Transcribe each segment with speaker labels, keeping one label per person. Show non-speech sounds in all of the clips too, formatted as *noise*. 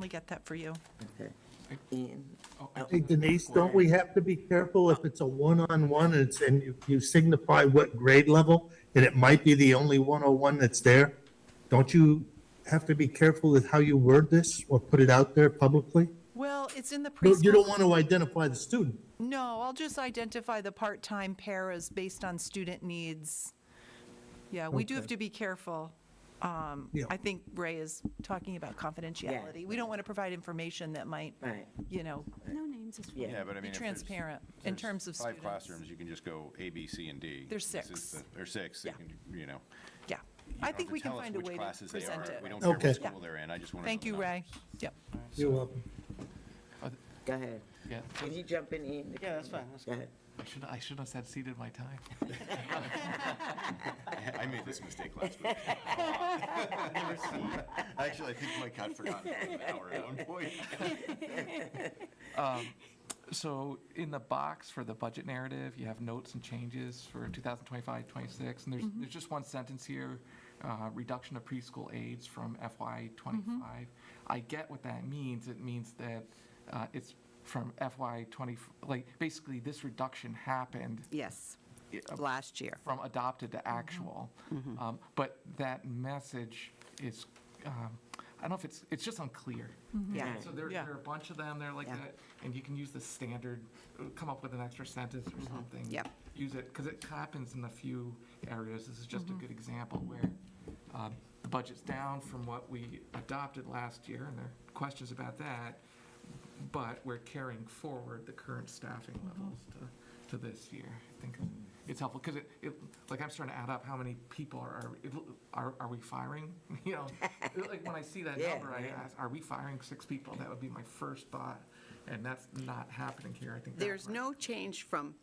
Speaker 1: definitely get that for you.
Speaker 2: Okay. Ian,
Speaker 3: Oh, I
Speaker 2: oh,
Speaker 4: Hey Denise, don't we have to be careful if it's a one-on-one and it's, and you- you signify what grade level? And it might be the only one-on-one that's there? Don't you have to be careful with how you word this or put it out there publicly?
Speaker 1: Well, it's in the
Speaker 4: You you don't
Speaker 1: preschool.
Speaker 4: want to identify the student.
Speaker 1: No, I'll just identify the part-time paras based on student needs. Yeah, we do have to be careful. Um,
Speaker 4: Yeah.
Speaker 1: I think Ray is talking about confidentiality. We don't want to provide information that might,
Speaker 2: right,
Speaker 1: you know,
Speaker 5: No names is fine.
Speaker 2: yeah,
Speaker 6: Yeah, but
Speaker 1: be
Speaker 6: I mean. if there's-
Speaker 1: transparent in
Speaker 6: there's
Speaker 1: terms of students.
Speaker 6: Five classrooms, you can just go A, B, C, and D.
Speaker 1: There's
Speaker 6: This
Speaker 1: six.
Speaker 6: is the- Or six, you
Speaker 1: Yeah.
Speaker 6: can, you know.
Speaker 1: Yeah,
Speaker 6: You
Speaker 1: I
Speaker 6: don't
Speaker 1: think
Speaker 6: have to
Speaker 1: we can
Speaker 6: tell us
Speaker 1: find a
Speaker 6: which
Speaker 1: way to
Speaker 6: classes they
Speaker 1: present
Speaker 6: are.
Speaker 1: it.
Speaker 6: We don't care
Speaker 4: Okay.
Speaker 6: what school they're in, I just want to.
Speaker 1: Thank you, Ray. Yep.
Speaker 4: You're welcome.
Speaker 7: uh,
Speaker 2: go ahead.
Speaker 3: Yeah,
Speaker 2: Can you jump in, Ian?
Speaker 8: Yeah, that's fine, that's
Speaker 2: Go ahead.
Speaker 3: I should, I should have said ceded my time.
Speaker 6: *laughs* I made this mistake
Speaker 1: *laughs*
Speaker 6: last week. *laughs* Actually, I think Mike had forgotten for an hour at one point.
Speaker 3: So in the box for the budget narrative, you have notes and changes for 2025, 26, and there's, there's just one sentence here, uh, reduction of preschool aides from FY '25. I get what that means. It means that uh, it's from FY '20, like, basically, this reduction happened
Speaker 9: Yes,
Speaker 3: Yeah, uh,
Speaker 9: last year.
Speaker 3: from adopted to actual. Um, But that message is, um, I don't know if it's, it's just unclear.
Speaker 2: Mm-hmm.
Speaker 9: Yeah.
Speaker 3: So there,
Speaker 1: Yeah.
Speaker 3: there are a bunch of them, they're like
Speaker 9: Yeah.
Speaker 3: that, and you can use the standard, uh, come up with an extra sentence or something.
Speaker 9: Mm-hmm. Yep.
Speaker 3: Use it, because it happens in a few areas, this is just a good example where uh, the budget's down from what we adopted last year, and there are questions about that, but we're carrying forward the current staffing levels to, to this year. I think it's helpful, because it, it, like, I'm starting to add up how many people are, are, are we firing? *laughs* You know, like, when I see that
Speaker 2: Yeah,
Speaker 3: number, I
Speaker 2: yeah.
Speaker 3: ask, are we firing six people? That would be my first thought, and that's not happening here, I think. that's
Speaker 8: There's
Speaker 3: where-
Speaker 9: No change from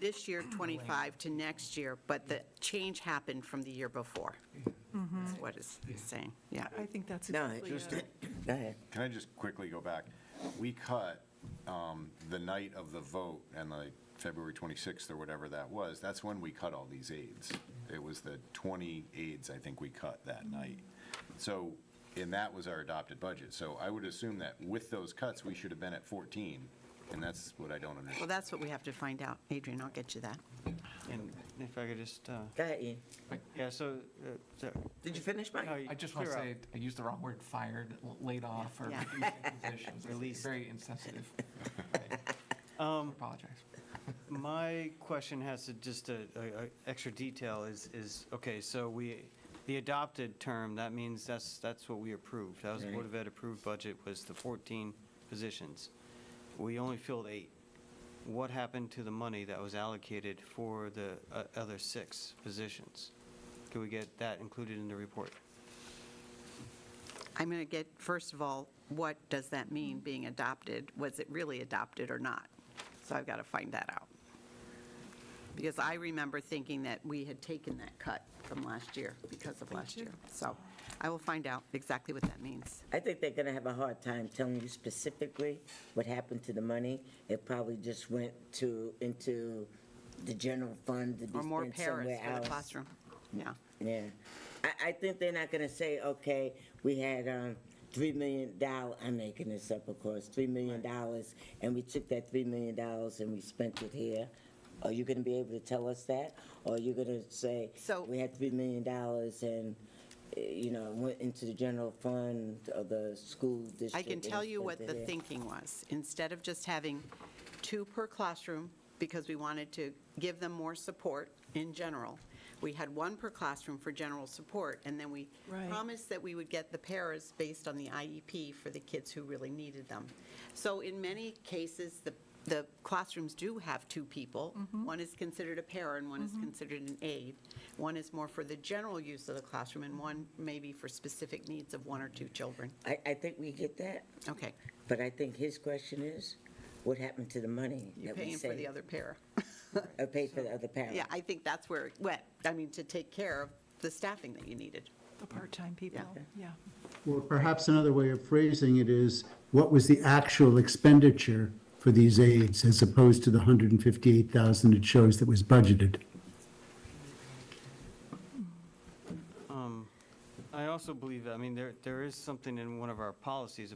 Speaker 9: this year, 25, to next year, but the change happened from the year before. That's what it's saying, yeah.
Speaker 1: I think that's
Speaker 2: No,
Speaker 1: exactly
Speaker 2: just,
Speaker 1: it.
Speaker 2: go ahead.
Speaker 6: Can I just quickly go back? We cut um, the night of the vote and like February 26th or whatever that was, that's when we cut all these aides. It was the 20 aides, I think we cut that night. So, and that was our adopted budget. So I would assume that with those cuts, we should have been at 14, and that's what I don't
Speaker 9: Well,
Speaker 6: understand.
Speaker 9: that's what we have to find out. Adrian, I'll get you that.
Speaker 8: And if I could just, uh,
Speaker 2: Go ahead, Ian.
Speaker 8: yeah, so, uh, so-
Speaker 2: Did you finish, Mike?
Speaker 8: no, you
Speaker 3: I just want to
Speaker 8: clear out.
Speaker 3: say, I used the wrong word, fired, l- laid off, or
Speaker 9: Yeah.
Speaker 3: *laughs* reducing positions. It's
Speaker 8: Released.
Speaker 3: Very
Speaker 9: *laughs*
Speaker 3: insensitive. I
Speaker 8: Um,
Speaker 3: Apologize.
Speaker 8: My question has to, just a, a- a extra detail is, is, okay, so we, the adopted term, that means that's, that's what we approved. That was the Board of Ed approved budget was the 14 positions. We only filled eight. What happened to the money that was allocated for the uh, other six positions? Could we get that included in the report?
Speaker 9: I'm going to get, first of all, what does that mean, being adopted? Was it really adopted or not? So I've got to find that out. Because I remember thinking that we had taken that cut from last year because of last year. So I will find out exactly what that means.
Speaker 2: I think they're gonna have a hard time telling you specifically what happened to the money. It probably just went to, into the general fund to be
Speaker 9: Or more
Speaker 2: spent
Speaker 9: paras
Speaker 2: somewhere
Speaker 9: for the
Speaker 2: else.
Speaker 9: classroom. Yeah.
Speaker 2: Yeah. I, I think they're not gonna say, okay, we had, um, three million dollar, I'm making this up, of course, three million dollars, and we took that three million dollars and we spent it here. Are you gonna be able to tell us that? Or are you gonna say,
Speaker 9: So-
Speaker 2: we had three million dollars and, eh, you know, went into the general fund of the school district?
Speaker 9: I can
Speaker 2: and
Speaker 9: tell you
Speaker 2: spent
Speaker 9: what
Speaker 2: it
Speaker 9: the
Speaker 2: here"?
Speaker 9: thinking was. Instead of just having two per classroom, because we wanted to give them more support in general, we had one per classroom for general support, and then we
Speaker 1: Right.
Speaker 9: promised that we would get the paras based on the IEP for the kids who really needed them. So in many cases, the, the classrooms do have two people. One is considered a para and one is considered an aide. One is more for the general use of the classroom, and one maybe for specific needs of one or two children.
Speaker 2: I, I think we get that,
Speaker 9: Okay.
Speaker 2: but I think his question is, what happened to the money?
Speaker 9: You're
Speaker 2: that we
Speaker 9: paying for the
Speaker 2: saved?
Speaker 9: other pair.
Speaker 2: Uh, paid for the other parent?
Speaker 9: *laughs* Yeah, I think that's where it went. I mean, to take care of the staffing that you needed.
Speaker 1: The part-time people, yeah.
Speaker 7: Well, perhaps another way of phrasing it is, what was the actual expenditure for these aides as opposed to the 158,000 it shows that was budgeted?
Speaker 8: I also believe, I mean, there, there is something in one of our policies